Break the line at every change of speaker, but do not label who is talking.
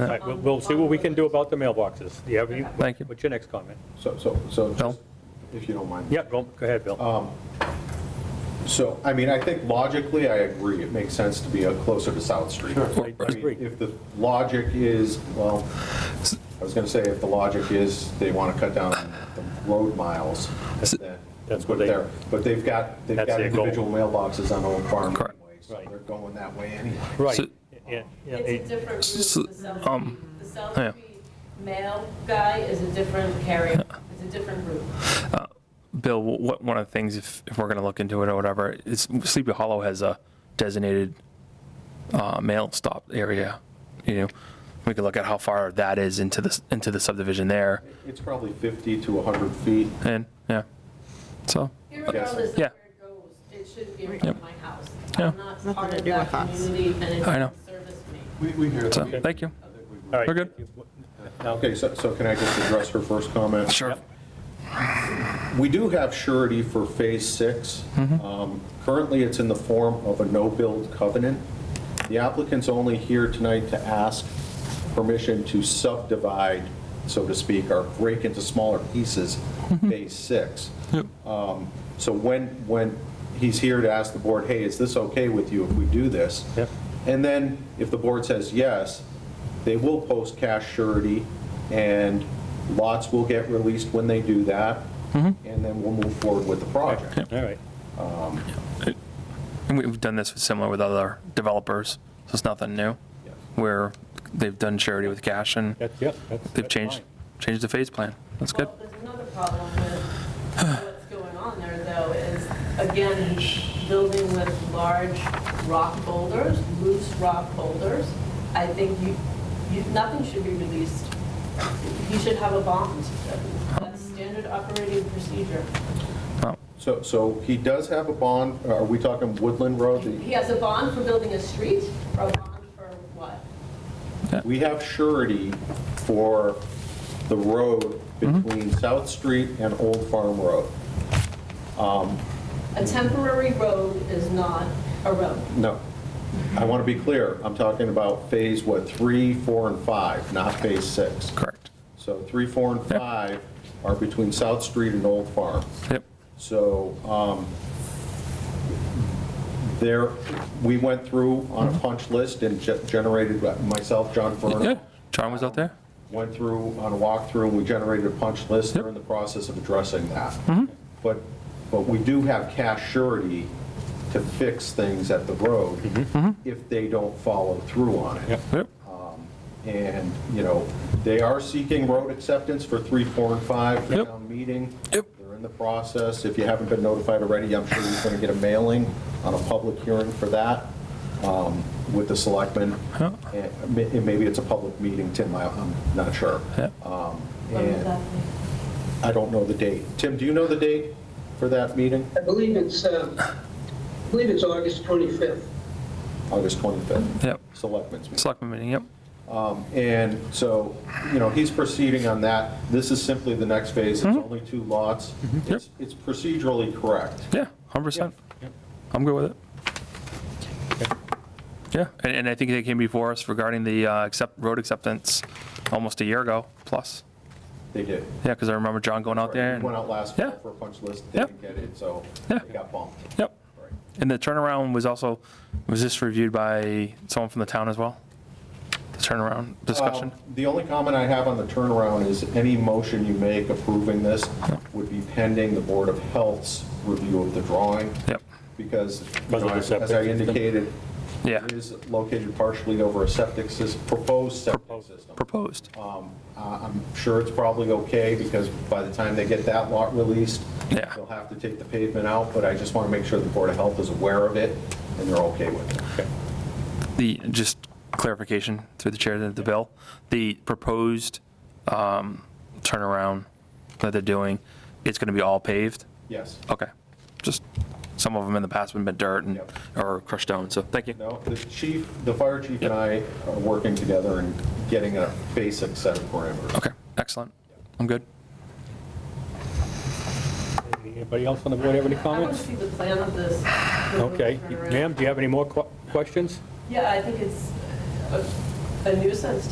All right, we'll- We'll see what we can do about the mailboxes. Do you have any-
Thank you.
What's your next comment?
So, so, so,
Bill?
just if you don't mind.
Yeah, go go ahead, Bill.
So, I mean, I think logically, I agree, it makes sense to be uh, closer to South Street.
I
I mean,
agree.
If the logic is, well, I was going to say, if the logic is they want to cut down the road miles, then
That's what
put
they-
it there. But they've got, they've
That's
got
their goal.
individual mailboxes on Old Farm
Correct.
anyway, so
Right.
they're going that way anyway.
Right.
So-
Yeah, yeah,
It's a
it-
different route, the
S-
South Street,
um,
the South
yeah.
Street mail guy is a different carrier, it's a different route.
Uh, Bill, what, one of the things, if, if we're going to look into it or whatever, is Sleepy Hollow has a designated uh, mail stop area, you know? We could look at how far that is into the, s- into the subdivision there,
It's probably 50 to 100 feet.
and, yeah, so,
Irregardless of where
Yeah.
it goes, it should be in front of my house.
Yeah.
I'm not part
to
of
do
that
with us.
community, and it
I know.
doesn't service me.
We, we hear
so, thank you.
all right.
We're good.
Now,
Okay, so, so can I just address her first comment?
Sure.
We do have surety for Phase 6. Um, Currently, it's in the form of a no-build covenant. The applicant's only here tonight to ask permission to subdivide, so to speak, or break into smaller pieces Phase 6. Um, So when, when, he's here to ask the board, hey, is this okay with you if we do this?
Yep.
And then, if the board says yes, they will post cash surety, and lots will get released when they do that, and then we'll move forward with the project.
All right.
And we've done this with- similar with other developers, so it's nothing new,
Yes.
where they've done charity with cash and
That's, yeah, that's.
they've
that's
changed,
fine.
changed the phase plan. That's good.
Well, there's another problem with what's going on there, though, is, again, building with large rock boulders, loose rock boulders, I think you, you, nothing should be released. You should have a bond. That's standard operating procedure.
So, so he does have a bond, are we talking Woodland Road?
He has a bond for building a street, or a bond for what?
We have surety for the road between South Street and Old Farm Road.
A temporary road is not a road.
No, I want to be clear, I'm talking about Phase, what, 3, 4, and 5, not Phase 6.
Oh, Correct.
So 3, 4, and
Yep.
5 are between South Street and Old Farm.
Yep.
So um, there, we went through on a punch list and ge- generated, myself, John
Yeah,
Furno,
John was out there.
went through on a walkthrough, and we generated a punch list.
Yep.
They're in the process of addressing that. But, but we do have cash surety to fix things at the road if they don't follow through on it.
Yep.
Yep.
And, you know, they are seeking road acceptance for 3, 4, and 5 for
Yep.
town meeting.
Yep.
They're in the process. If you haven't been notified already, I'm sure you're going to get a mailing on a public hearing for that um, with the selectmen.
Yep.
And ma- and maybe it's a public meeting, Tim, I- I'm not sure.
Yep.
Um,
What would
And
that be?
I don't know the date. Tim, do you know the date for that meeting?
I believe it's, uh, I believe it's August 25th.
August 25th.
Yep.
Selectmen's meeting.
Selectmen meeting, yep.
And so, you know, he's proceeding on that. This is simply the next phase. It's
Mm-hmm.
only two lots. It's it's procedurally correct.
Yeah, 100%. I'm good with it. Yeah, and, and I think they came before us regarding the uh, accept, road acceptance almost a year ago plus.
They did.
Yeah, because I remember John going out there. and-
Went out last
Oh, Yeah.
fall for a punch list, didn't get it, so
Yeah.
it got bumped.
Yep.
Right.
And the turnaround was also, was this reviewed by someone from the town as well? The turnaround discussion?
Um, The only comment I have on the turnaround is any motion you make approving this would be pending the Board of Health's review of the drawing.
Yep.
Because, you
Because
know,
of the
as as I
septic system.
indicated,
Yeah.
it is located partially over a septic system, proposed septic system.
Proposed.
Uh, I'm sure it's probably okay, because by the time they get that lot released,
Yeah.
they'll have to take the pavement out, but I just want to make sure the Board of Health is aware of it, and they're okay with it.
Okay.
The, just clarification through the chair to the bill, the proposed um, turnaround that they're doing, it's going to be all paved?
Yes.
Okay, just, some of them in the past have been dirt and,
Yep.
or crushed stone, so thank you.
No, the chief, the fire chief and I are working together and getting a basic set of parameters.
Okay, excellent, I'm good.
Anybody else on the board have any
I want to
comments?
see the plan of this. the road
Okay.
turnaround.
Ma'am, do you have any more que- questions?
Yeah, I think it's a- a nuisance